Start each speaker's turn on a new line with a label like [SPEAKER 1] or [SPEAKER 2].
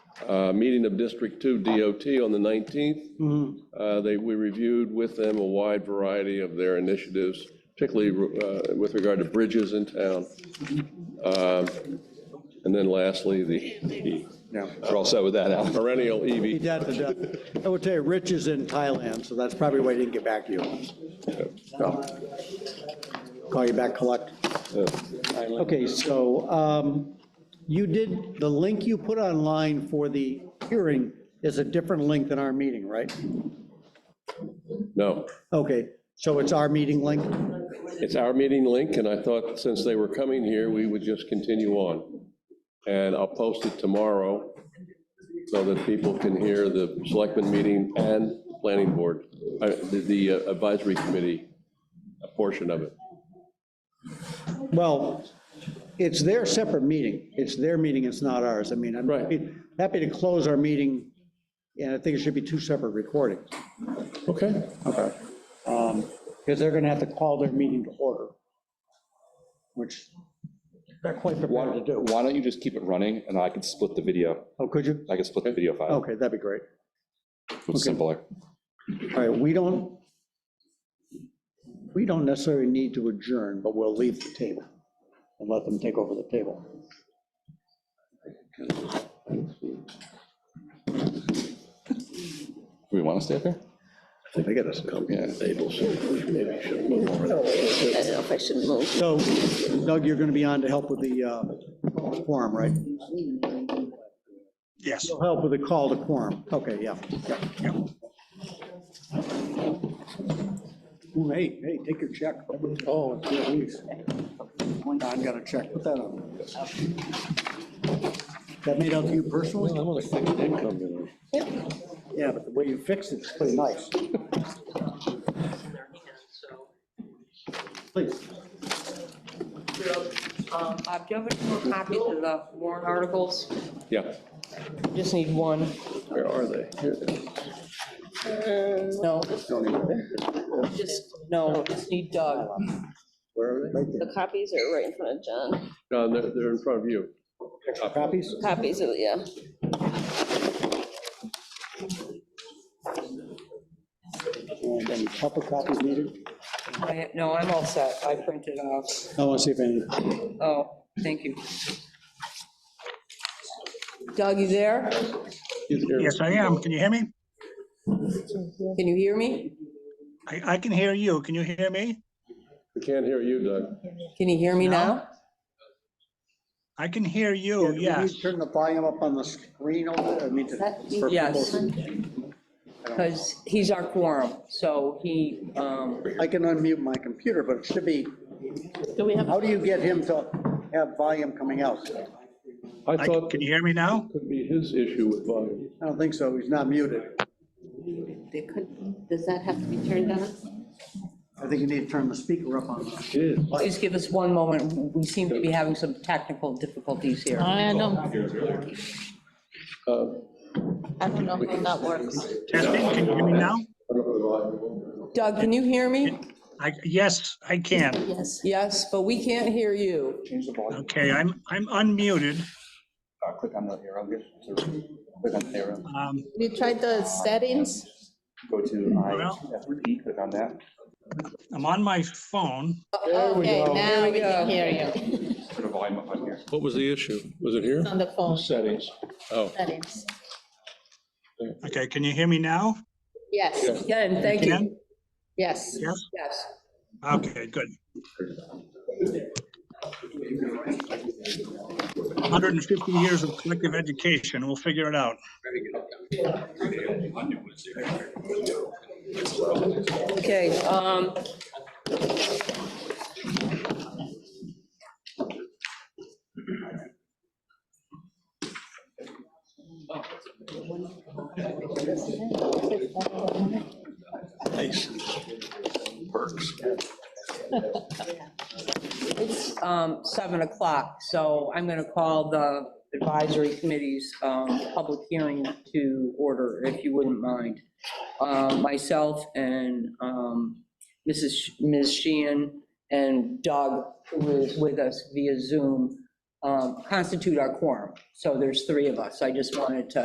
[SPEAKER 1] uh, meeting of District 2 DOT on the 19th. Uh, They, we reviewed with them a wide variety of their initiatives, particularly uh, with regard to bridges in town. Um, And then lastly, the- the
[SPEAKER 2] We're all set with that, Al.
[SPEAKER 1] perennial E EV
[SPEAKER 3] Beat that to death. I will tell you, Rich is in Thailand, so that's probably why he didn't get back to you. So, Call you back, collect. Okay, so um, you did, the link you put online for the hearing is a different link than our meeting, right?
[SPEAKER 1] No,
[SPEAKER 3] Okay, so it's our meeting link?
[SPEAKER 1] it's our meeting link, and I thought since they were coming here, we would just continue on. And I'll post it tomorrow so that people can hear the selectmen meeting and planning board, uh, the the advisory committee a portion of it.
[SPEAKER 3] Well, it's their separate meeting. It's their meeting, it's not ours. I mean, I'm
[SPEAKER 1] Right.
[SPEAKER 3] happy- happy to close our meeting, and I think it should be two separate recordings.
[SPEAKER 1] Okay.
[SPEAKER 3] Okay. Um, Because they're going to have to call their meeting to order, which they're quite prepared to do.
[SPEAKER 2] Why don't you just keep it running, and I can split the video,
[SPEAKER 3] Oh, could you?
[SPEAKER 2] I can split the video file,
[SPEAKER 3] Okay, that'd be great.
[SPEAKER 2] it's simpler.
[SPEAKER 3] All right, we don't, we don't necessarily need to adjourn, but we'll leave the table and let them take over the table.
[SPEAKER 2] Do we want to stay up here?
[SPEAKER 4] They got us a couple
[SPEAKER 2] Yeah.
[SPEAKER 4] of tables, so maybe we should move over.
[SPEAKER 5] I don't know if I should move.
[SPEAKER 3] So Doug, you're going to be on to help with the uh, quorum, right?
[SPEAKER 4] Yes.
[SPEAKER 3] You'll help with the call to quorum. Okay, yeah. yeah, yeah. Ooh, Hey, hey, take your check. Oh, geez. Don got a check. Put that on. That made out to you personally? Yeah, but the way you fixed it's pretty nice. Please.
[SPEAKER 6] Um, Bob, do you have any more copies of the warrant articles?
[SPEAKER 1] Yeah,
[SPEAKER 6] Just need one.
[SPEAKER 1] where are they? Here they are.
[SPEAKER 6] No. Just, no, just need Doug.
[SPEAKER 1] Where are they?
[SPEAKER 5] The copies are right in front of John.
[SPEAKER 1] John, they're, they're in front of you.
[SPEAKER 3] Copies?
[SPEAKER 5] Copies, of yeah.
[SPEAKER 3] And any proper copies needed?
[SPEAKER 6] I- No, I'm all set. I printed off.
[SPEAKER 3] I want to see if any.
[SPEAKER 6] Oh, thank you. Doug, you there?
[SPEAKER 7] Yes, I am. Can you hear me?
[SPEAKER 6] Can you hear me?
[SPEAKER 7] I, I can hear you. Can you hear me?
[SPEAKER 1] We can't hear you, Doug.
[SPEAKER 6] Can you hear me now?
[SPEAKER 7] I can hear you,
[SPEAKER 3] Can we
[SPEAKER 7] yes.
[SPEAKER 3] Turn the volume up on the screen over there, I mean, to- for
[SPEAKER 6] Yes.
[SPEAKER 3] people.
[SPEAKER 6] Because he's our quorum, so he, um,
[SPEAKER 3] I can unmute my computer, but it should be,
[SPEAKER 5] Do we have?
[SPEAKER 3] how do you get him to have volume coming out?
[SPEAKER 1] I
[SPEAKER 7] I,
[SPEAKER 1] thought
[SPEAKER 7] can you hear me now?
[SPEAKER 1] it could be his issue with volume.
[SPEAKER 3] I don't think so, he's not muted.
[SPEAKER 5] They could, does that have to be turned on?
[SPEAKER 3] I think you need to turn the speaker up on.
[SPEAKER 6] please give us one moment. We seem to be having some technical difficulties here.
[SPEAKER 8] I don't, I don't know how that works.
[SPEAKER 7] Testing, can you hear me now?
[SPEAKER 6] Doug, can you hear me?
[SPEAKER 7] I, yes, I can.
[SPEAKER 8] Yes.
[SPEAKER 6] Yes, but we can't hear you.
[SPEAKER 2] Change the volume,
[SPEAKER 7] Okay, I'm, I'm unmuted.
[SPEAKER 2] click on the arrow here, click on the arrow,
[SPEAKER 7] Um,
[SPEAKER 8] You tried the settings?
[SPEAKER 2] go to
[SPEAKER 7] IFP,
[SPEAKER 2] click on that.
[SPEAKER 7] I'm on my phone.
[SPEAKER 8] Okay, now
[SPEAKER 6] There we
[SPEAKER 8] we
[SPEAKER 6] go.
[SPEAKER 8] can hear you.
[SPEAKER 2] Put a volume up on here.
[SPEAKER 1] What was the issue? Was it here?
[SPEAKER 8] It's on the phone
[SPEAKER 1] Settings. Oh,
[SPEAKER 8] settings.
[SPEAKER 7] Okay, can you hear me now?
[SPEAKER 8] Yes,
[SPEAKER 6] Again, thank you.
[SPEAKER 7] Again?
[SPEAKER 8] yes.
[SPEAKER 7] Yes?
[SPEAKER 6] Yes.
[SPEAKER 7] Okay, good. 150 years of collective education, we'll figure it out.
[SPEAKER 6] Okay, um. It's, um, seven o'clock, so I'm gonna call the advisory committee's, um, public hearing to order, if you wouldn't mind. Um, myself and, um, Mrs. Sh- Ms. Sheehan and Doug, who is with us via Zoom, um, constitute our quorum. So there's three of us. I just wanted to